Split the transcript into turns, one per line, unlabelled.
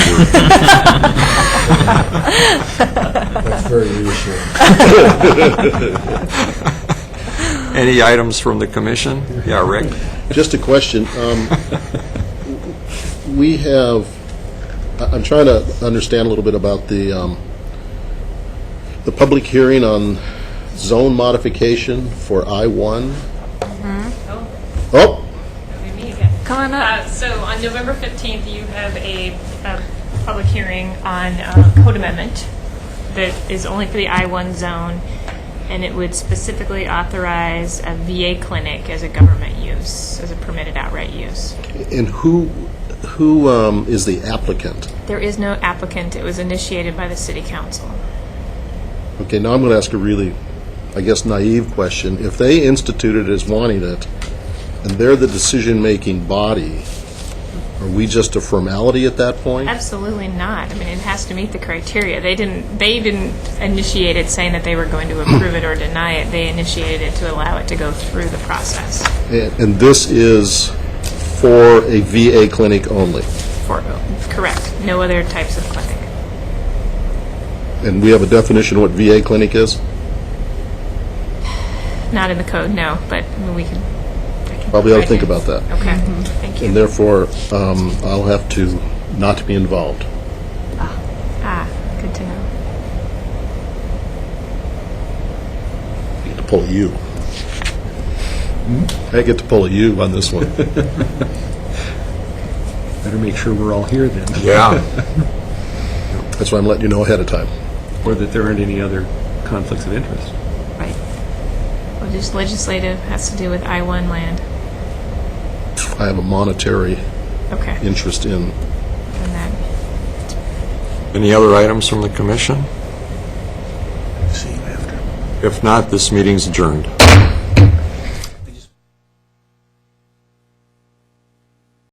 That's very reassuring.
Any items from the commission? Yeah, Rick?
Just a question. um, We have, I- I'm trying to understand a little bit about the, um, the public hearing on zone modification for I-1. Oh,
That'd be me again.
Come on
Uh,
up.
So on November 15th, you have a a public hearing on uh, code amendment that is only for the I-1 zone, and it would specifically authorize a VA clinic as a government use, as a permitted outright use.
and who, who um, is the applicant?
There is no applicant, it was initiated by the city council.
Okay, now I'm going to ask a really, I guess, naive question. If they instituted as wanting it, and they're the decision-making body, are we just a formality at that point?
Absolutely not. I mean, it has to meet the criteria. They didn't, they didn't initiate it saying that they were going to approve it or deny it. They initiated it to allow it to go through the process
And and this is for a VA clinic only,
for, correct, no other types of clinic.
and we have a definition of what VA clinic is?
Not in the code, no, but I mean, we can. I can
Probably ought to
provide
think
you.
about that.
Okay, thank
And
you.
therefore, um, I'll have to not be involved.
Ah, good to know.
I get to pull a U. I get to pull a U on this one.
Better make sure we're all here then,
Yeah.
That's why I'm letting you know ahead of time.
or that there aren't any other conflicts of interest.
Right. Well, just legislative has to do with I-1 land.
I have a monetary
Okay. And
interest in
that,
Any other items from the commission? If not, this meeting's adjourned.